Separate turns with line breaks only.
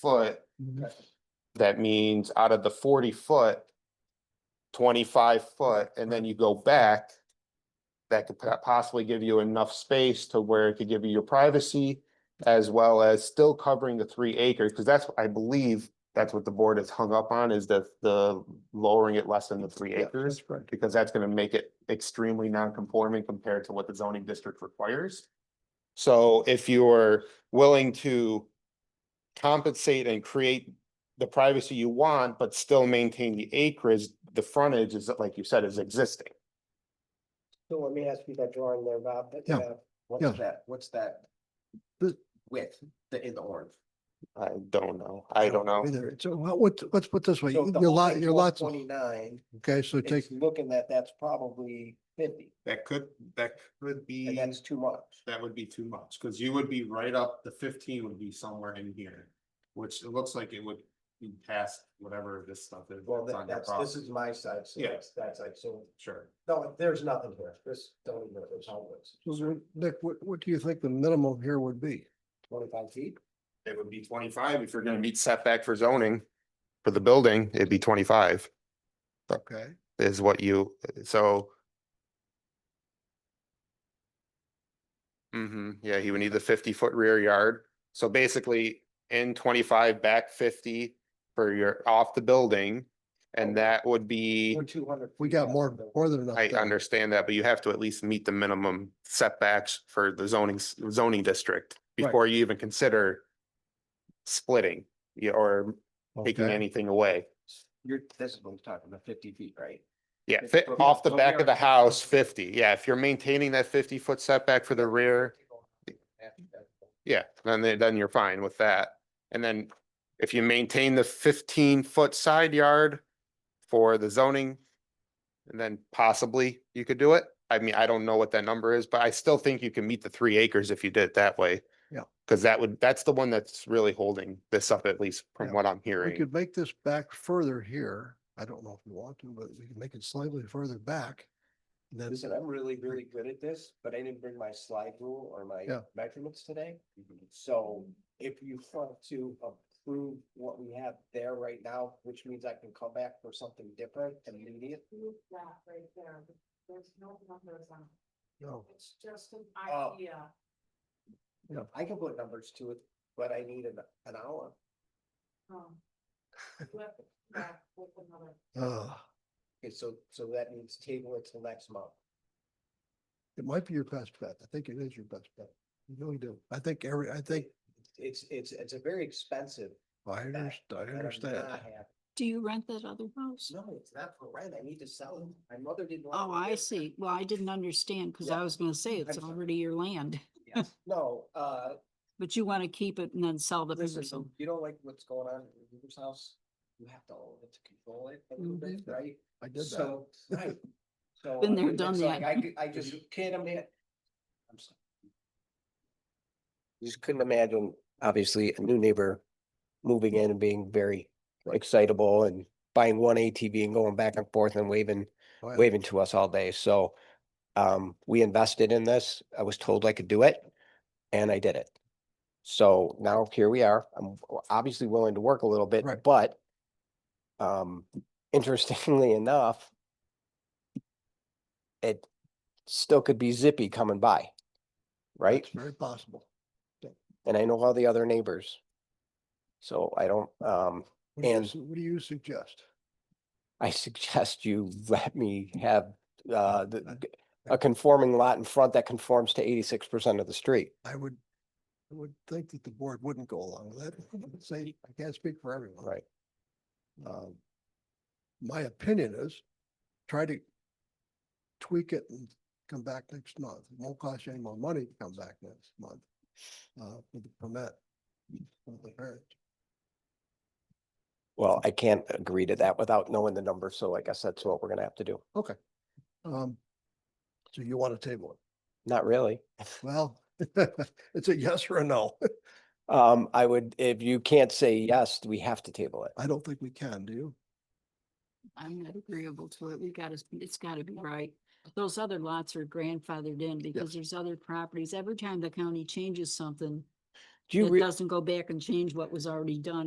foot, that means out of the forty foot, twenty-five foot, and then you go back, that could po- possibly give you enough space to where it could give you your privacy as well as still covering the three acres, because that's, I believe, that's what the board is hung up on, is that the lowering it less than the three acres, because that's gonna make it extremely non-conforming compared to what the zoning district requires. So if you're willing to compensate and create the privacy you want, but still maintain the acreage, the frontage is, like you said, is existing.
So let me ask you that drawing there, Bob. that uh, you
Yeah.
have.
Yeah.
What's that, what's that
The-
width, the, in the orange?
I don't know. I don't know.
Either. So what, what's- let's put this way,
So
your
if the whole
lot,
thing's
your lots, of-
Twenty-nine,
okay, so take,
it's looking that that's probably fifty,
That could, that could
and
be,
that's too much.
that would be too much, cause you would be right up, the fifteen would be somewhere in here. Which it looks like it would be past whatever this stuff is.
Well,
that's
that-
on your
that's, this is
property.
my side, so
Yeah.
that's, that's like, so,
Sure,
no, there's nothing here. This, don't even know there's always
So what- Nick, what, what do you think the minimum here would be?
twenty-five feet.
It would be twenty-five if you're gonna meet setback for zoning for the building, it'd be twenty-five
Okay,
is what you, so. hmm yeah, he would need the fifty-foot rear yard. So basically in twenty-five, back fifty for your, off the building. And that would be,
We're two hundred.
we got more, more than enough.
I
there.
understand that, but you have to at least meet the minimum setbacks for the zoning, s- zoning district
Right.
before you even consider splitting yeah, or taking
Okay.
anything away.
You're, this is what we're talking about, fifty feet, right?
Yeah,
If
fi-
the-
off the
the
back of
rear-
the house, fifty. Yeah, if you're maintaining that fifty-foot setback for the rear, yeah, then, they- then you're fine with that. And then if you maintain the fifteen-foot side yard for the zoning, and then possibly you could do it. I mean, I don't know what that number is, but I still think you can meet the three acres if you did it that way.
Yeah.
Because that would, that's the one that's really holding this up, at least from
Yeah.
what I'm
We
hearing.
could make this back further here. I don't know if we want to, but we can make it slightly further back. And Then,
Listen, I'm really, really good at this, but I didn't bring my slide rule or my
Yeah. Mm-hmm.
measurements today. So if you want to approve what we have there right now, which means I can come back for something different and immediate.
Move that right there, but there's no numbers on,
no,
it. it's just an
Oh.
idea.
I can put numbers to it, but I need an, an hour.
um, With, that, with another,
uh,
Okay, so, so that means table it till next month.
it might be your best bet. I think it is your best bet. You really do. I think every, I think,
It's, it's, it's a very expensive.
I
bet,
understand, I
and I'm
understand.
not happy.
Do you rent that other house?
No, it's not for rent. I need to sell it. My mother didn't. want
Oh,
me
I
to.
see. Well, I didn't understand because
Yeah.
I was gonna say it's
I'm sorry.
already your land,
Yes. No, uh,
but you want to keep it and then sell the
listen,
parcel.
you don't like what's going on in your neighbor's house? You have to own it to control it a little bit,
Mhm.
right?
I did that.
So, right. So.
Been
I
there,
mean,
done
it's like
that.
I, could- I just can't imagine. I'm sorry. Just couldn't imagine, obviously, a new neighbor moving in and being very excitable and buying one ATV and going back and forth and waving,
Oh, yeah.
waving to us all day. So um, we invested in this. I was told I could do it and I did it. So now here we are. I'm w- obviously willing to work a little bit,
Right.
but um, interestingly enough, it still could be zippy coming by, right?
It's very possible.
And I know all the other neighbors. So I don't, um,
What do you,
And-
su- what do you suggest?
I suggest you let me have uh,
I-
the, a conforming lot in front that conforms to eighty-six percent of the street.
I would, I would think that the board wouldn't go along with that. Say, I can't speak for everyone.
Right.
Um, my opinion is try to tweak it and come back next month. It won't cost you any more money to come back next month. Uh, with the permit. of the variance.
Well, I can't agree to that without knowing the number, so I guess that's what we're gonna have to do.
Um, so you want to table it?
Not really.
Well, it's a yes or a no.
Um, I would, if you can't say yes, we have to table it.
I don't think we can, do you?
I'm not agreeable to it. We gotta, it's gotta be right. Those other lots are grandfathered in because there's other properties. Every time the county changes something,
Do you
it
re-
doesn't go back and change what was already done.